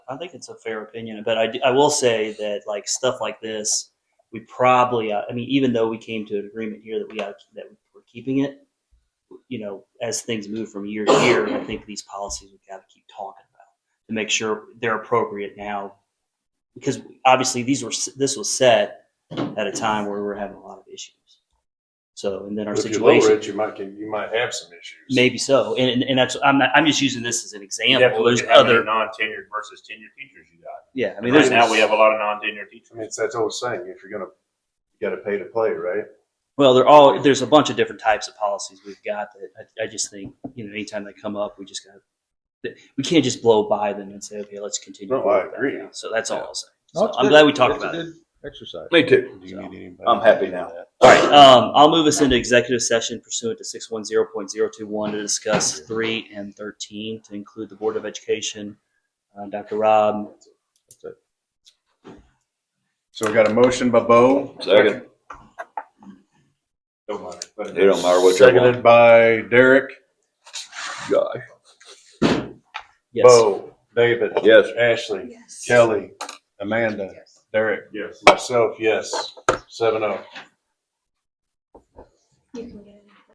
I think it's a fair opinion, but I, do- I will say that like stuff like this, we probably, uh, I mean, even though we came to an agreement here that we got that we're keeping it, you know, as things move from year to year, I think these policies we got to keep talking about to make sure they're appropriate now, because obviously these were s- this was set at a time where we we're having a lot of issues. So and then our If you situation. lower it, you might, get- you might have some issues. Maybe so, and and- and that's I'm not, I'm just using this as an You have to example. look There's at how many other non-tenured versus tenured teachers you got. yeah. I mean, Right there's now, we have a lot of non-tenured I teachers. mean, it's that old saying, if you're gonna, you gotta pay to play, right? well, they're all there's a bunch of different types of policies we've got that I, I just think you know anytime they come up, we just got to we can't just blow by them and say okay, let's continue. No, I with that agree. now. So that's all Yeah. I'll say. No, So it's I'm good. glad we talked It's about a it. good Exercise. Me too. So- I'm happy now. All right, um, I'll move us into executive session pursuant to six one zero point zero two one to discuss three and thirteen to include the Board of Education, uh, Dr. Rob, So we got a motion by Bo. Second. Don't matter. It don't matter what you want. Seconded by Derek. Gosh. yes, Bo, David. Yes. Ashley, Yes. Kelly, Amanda, Yes. Derek, Yes. myself, yes, seven oh. You can get